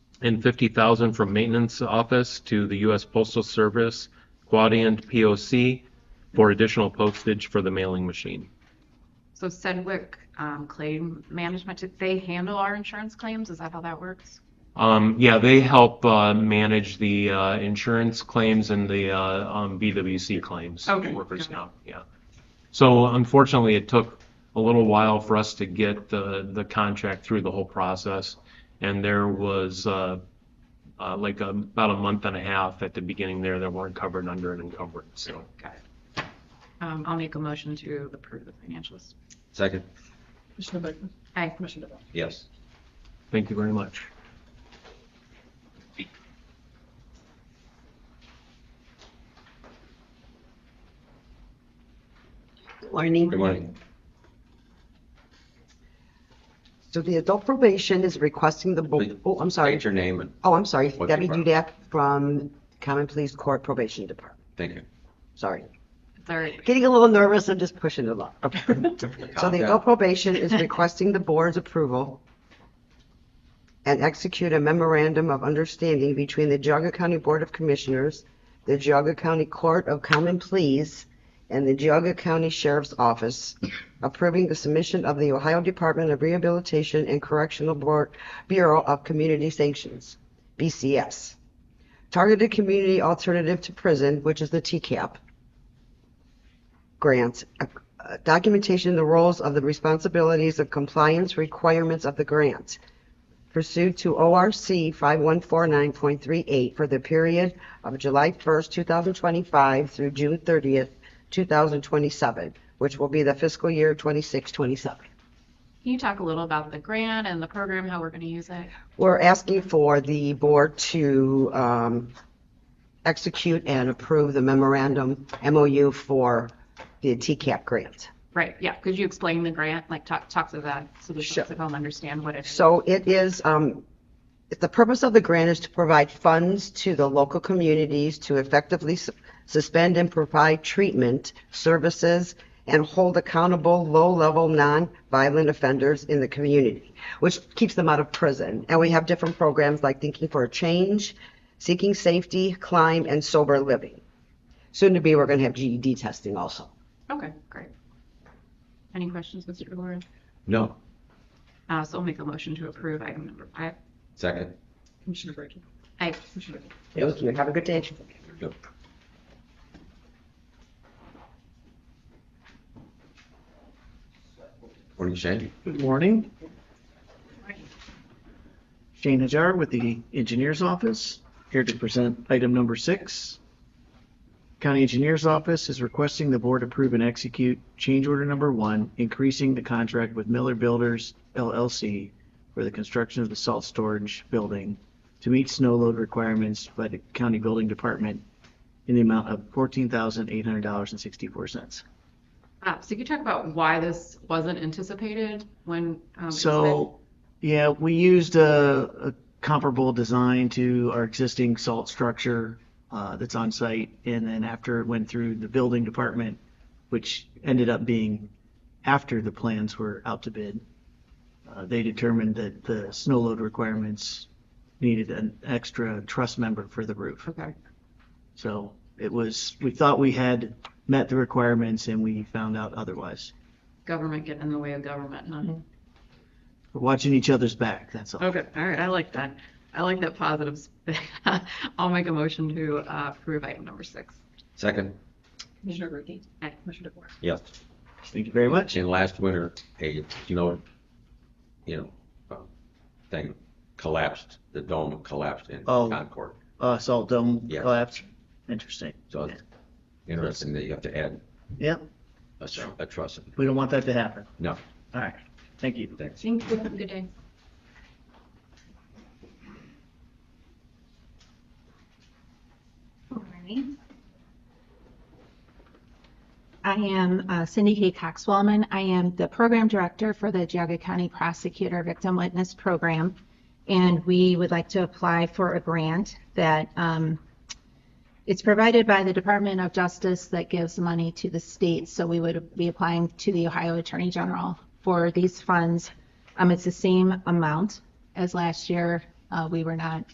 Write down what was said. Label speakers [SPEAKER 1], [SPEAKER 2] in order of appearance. [SPEAKER 1] and fifty thousand from maintenance office to the U.S. Postal Service Quadient POC for additional postage for the mailing machine.
[SPEAKER 2] So Sedgwick um, Claim Management, did they handle our insurance claims? Is that how that works?
[SPEAKER 1] Um, yeah, they help, uh, manage the, uh, insurance claims and the, uh, um, BWC claims.
[SPEAKER 2] Okay.
[SPEAKER 1] Workers comp, yeah. So unfortunately, it took a little while for us to get the, the contract through the whole process. And there was, uh, uh, like um, about a month and a half at the beginning there that weren't covered under an encumbrance, so.
[SPEAKER 2] Got it. Um, I'll make a motion to approve the financials.
[SPEAKER 3] Second?
[SPEAKER 4] Commissioner Beckman?
[SPEAKER 2] Aye.
[SPEAKER 4] Commissioner DeBoer?
[SPEAKER 3] Yes.
[SPEAKER 1] Thank you very much.
[SPEAKER 5] Morning.
[SPEAKER 3] Good morning.
[SPEAKER 5] So the adult probation is requesting the, bo-
[SPEAKER 3] Please.
[SPEAKER 5] oh, I'm sorry.
[SPEAKER 3] State your name and,
[SPEAKER 5] Oh, I'm sorry.
[SPEAKER 3] What's
[SPEAKER 5] Debbie
[SPEAKER 3] your-
[SPEAKER 5] Dudak from Common Police Court Probation Department.
[SPEAKER 3] thank you.
[SPEAKER 5] Sorry.
[SPEAKER 2] Third,
[SPEAKER 5] Getting a little nervous. I'm just pushing it along. So
[SPEAKER 3] Calm
[SPEAKER 5] the
[SPEAKER 3] down.
[SPEAKER 5] adult probation is requesting the board's approval and execute a memorandum of understanding between the Geauga County Board of Commissioners, the Geauga County Court of Common Pleas, and the Geauga County Sheriff's Office approving the submission of the Ohio Department of Rehabilitation and Correctional Board Bureau of Community Sanctions, BCS. Targeted Community Alternative to Prison, which is the TCAP grant, a uh, documentation of the roles of the responsibilities of compliance requirements of the grant pursued to ORC 5149.38 for the period of July 1st, 2025 through June 30th, 2027, which will be the fiscal year 26-27.
[SPEAKER 2] can you talk a little about the grant and the program, how we're going to use it?
[SPEAKER 5] We're asking for the board to um, execute and approve the memorandum MOU for the TCAP grant.
[SPEAKER 2] Right, yeah, could you explain the grant, like talk, talk to that, so the folks at home understand what it is?
[SPEAKER 5] So it is, um, the purpose of the grant is to provide funds to the local communities to effectively su- suspend and provide treatment services and hold accountable low-level non-violent offenders in the community, which keeps them out of prison. And we have different programs like Thinking for a Change, Seeking Safety, Climb, and Sober Living. Soon to be, we're going to have GED testing also.
[SPEAKER 2] Okay, great. Any questions, Mr. DeLore?
[SPEAKER 3] No.
[SPEAKER 2] Uh, so I'll make a motion to approve item number five.
[SPEAKER 3] Second?
[SPEAKER 4] Commissioner Brackey?
[SPEAKER 2] Aye.
[SPEAKER 4] Commissioner Beckman?
[SPEAKER 5] Thank you. Have a good day.
[SPEAKER 3] Yep. Morning, Shane.
[SPEAKER 6] Good morning. Shane Hajar with the Engineer's Office, here to present item number six. County Engineer's Office is requesting the board approve and execute change order number one, increasing the contract with Miller Builders LLC for the construction of the salt storage building to meet snow load requirements by the County Building Department in the amount of fourteen thousand eight hundred dollars and sixty-four cents.
[SPEAKER 2] Uh, so can you talk about why this wasn't anticipated when? um, it was
[SPEAKER 6] So, yeah, we used a, a comparable design to our existing salt structure uh, that's on site. And then after it went through the building department, which ended up being after the plans were out to bid, uh, they determined that the snow load requirements needed an extra truss member for the roof.
[SPEAKER 2] bid? Okay,
[SPEAKER 6] So it was, we thought we had met the requirements and we found out otherwise.
[SPEAKER 2] government getting in the way of government, huh?
[SPEAKER 4] Mm-hmm.
[SPEAKER 6] We're watching each other's back, that's all.
[SPEAKER 2] Okay, all right, I like that. I like that positive. spin. I'll make a motion to uh, approve item number six.
[SPEAKER 3] Second?
[SPEAKER 4] Commissioner Brackey?
[SPEAKER 2] Aye.
[SPEAKER 4] Commissioner DeBoer?
[SPEAKER 3] Yes.
[SPEAKER 6] Thank you very much.
[SPEAKER 3] And last winter, a, you know, you know, uh, thing collapsed, the dome collapsed in
[SPEAKER 6] Oh.
[SPEAKER 3] Concord.
[SPEAKER 6] uh, salt dome
[SPEAKER 3] Yeah.
[SPEAKER 6] collapse. Interesting.
[SPEAKER 3] So it's interesting that you have to add
[SPEAKER 6] Yeah,
[SPEAKER 3] a s- a truss.
[SPEAKER 6] we don't want that to happen.
[SPEAKER 3] No,
[SPEAKER 6] All right, thank you.
[SPEAKER 3] thanks.
[SPEAKER 2] Thank you. Have a good day.
[SPEAKER 7] Alright. I am uh, Cindy Hay Cox Wellman. I am the program director for the Geauga County Prosecutor Victim Witness Program. And we would like to apply for a grant that, um, it's provided by the Department of Justice that gives money to the state. So we would be applying to the Ohio Attorney General for these funds. Um, It's the same amount as last year. Uh, We were not